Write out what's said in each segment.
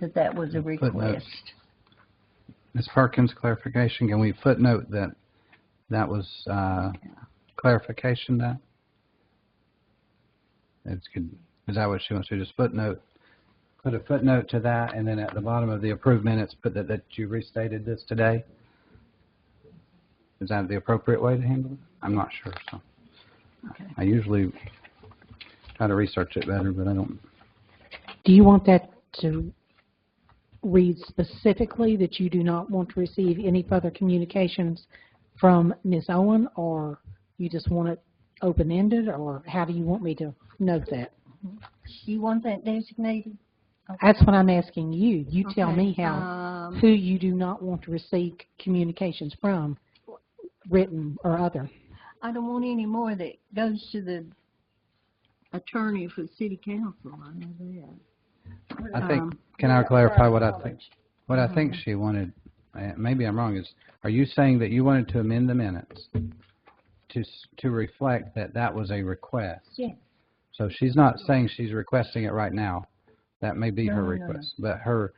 that that was a Footnotes. request. Ms. Perkins, clarification, can we footnote that that was uh, clarification that? It's good, is that what she wants to, just footnote? Put a footnote to that, and then at the bottom of the approved minutes, put that, that you restated this today? Is that the appropriate way to handle it? I'm not sure, so. Okay. I usually try to research it better, but I don't, Do you want that to read specifically that you do not want to receive any further communications from Ms. Owen, or you just want it open-ended, or how do you want me to note that? You want that designated? That's what I'm asking you. You tell Okay, me how, um, who you do not want to receive communications from, written or other. I don't want any more that goes to the attorney for the city council, I know that. I think, Um, can I clarify what I think? What I Mm-hmm. think she wanted, uh, maybe I'm wrong, is, are you saying that you wanted to amend the minutes to, s- to reflect that that was a request? Yes. So she's not saying she's requesting it right now. That may be No, her no, no, no. request, but her,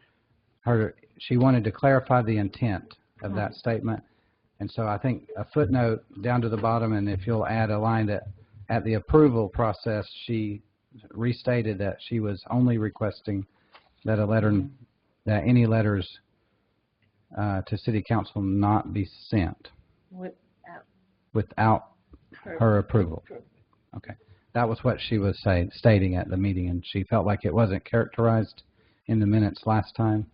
her, she wanted to clarify the intent of that Mm-hmm. statement. And so I think a footnote down to the bottom, and if you'll add a line that, at the approval process, she restated that she was only requesting that a letter, that any letters uh, to city council not be sent Without without her approval. Okay. That was what she was saying, stating at the meeting, and she felt like it wasn't characterized in the minutes last time.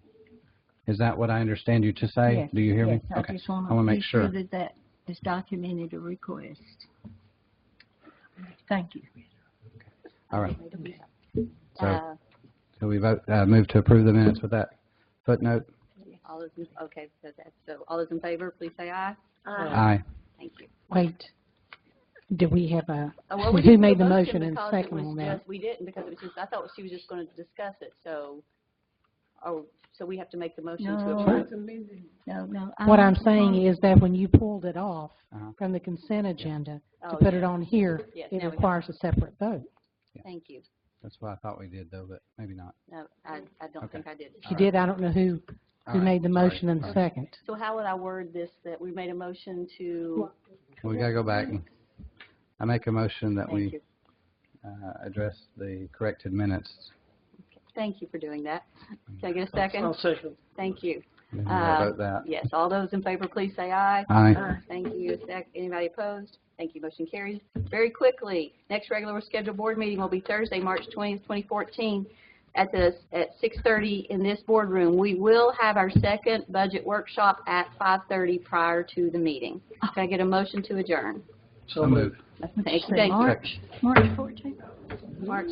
Is that what I understand you to say? Yes, Do you hear me? yes, I Okay. just want I wanna to make be sure sure. that that is documented a request. Thank you. All right. So, Uh, so we vote, uh, move to approve the minutes with that footnote? All those, in- okay, so that's, so all those in favor, please say aye. Aye. Thank you. Wait, do we have a, Uh, well, we who didn't made do the a motion and because it second was on that? just- We didn't, because it was just, I thought she was just going to discuss it, so, oh, so we have to make the motion to No. approve. No, no. What I'm um, saying is that when you pulled it off Uh-huh. from the consent agenda, to Oh, put it on here, Yes, it now we have requires a separate vote. Thank you. That's what I thought we did, though, but maybe not. No, I, I don't Okay. think I did. If you did, I don't know who, All who right. made the Sorry. motion and the Sorry. second. So how would I word this, that we made a motion to, We gotta go back. and- I make a motion that thank we you, uh, address the corrected minutes. thank you for doing that. Can I get a second? second. Thank you. And then we'll Uh, vote that. Yes, all those in favor, please say aye. Aye. Ah, Thank you. Sec- Anybody opposed? Thank you. Motion carries. Very quickly, next regular scheduled board meeting will be Thursday, March 20th, 2014, at the, at 6:30 in this boardroom. We will have our second budget workshop at 5:30 prior to the meeting. Can I get a motion to adjourn? So moved. Thank you. March, March fourteenth. March